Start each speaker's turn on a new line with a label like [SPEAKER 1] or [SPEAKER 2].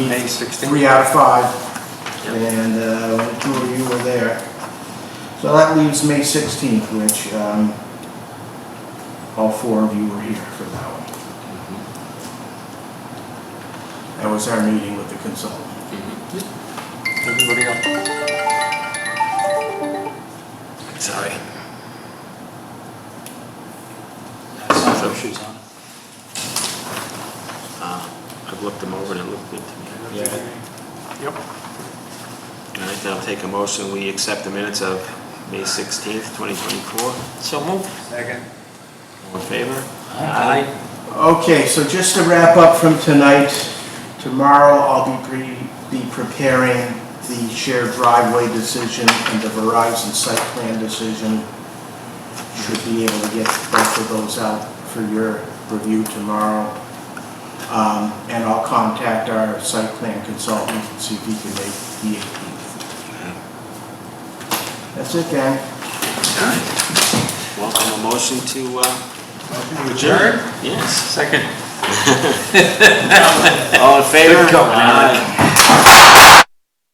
[SPEAKER 1] May 16th.
[SPEAKER 2] three out of five,
[SPEAKER 1] Yep.
[SPEAKER 2] and uh, two of you were there. So that leaves May 16th, which um, all four of you were here for that one. That was our meeting with the consultant.
[SPEAKER 1] Everybody else? Sorry.
[SPEAKER 3] So she's on.
[SPEAKER 4] Uh, I've looked them over and it looked good to me.
[SPEAKER 1] Yep.
[SPEAKER 4] All right, then I'll take a motion, we accept the minutes of May 16th, 2024.
[SPEAKER 1] So move. Second.
[SPEAKER 4] All in favor?
[SPEAKER 3] Aye.
[SPEAKER 2] Okay, so just to wrap up from tonight, tomorrow I'll be pre- be preparing the shared driveway decision and the Verizon site plan decision. Should be able to get both of those out for your review tomorrow. Um, And I'll contact our site plan consultant and see if he can make the 18th. That's it, gang.
[SPEAKER 4] Welcome a motion to, uh,
[SPEAKER 1] Adjourn?
[SPEAKER 4] yes.
[SPEAKER 1] Second.
[SPEAKER 4] All in favor?
[SPEAKER 1] Good going, Alan.
[SPEAKER 4] Aye.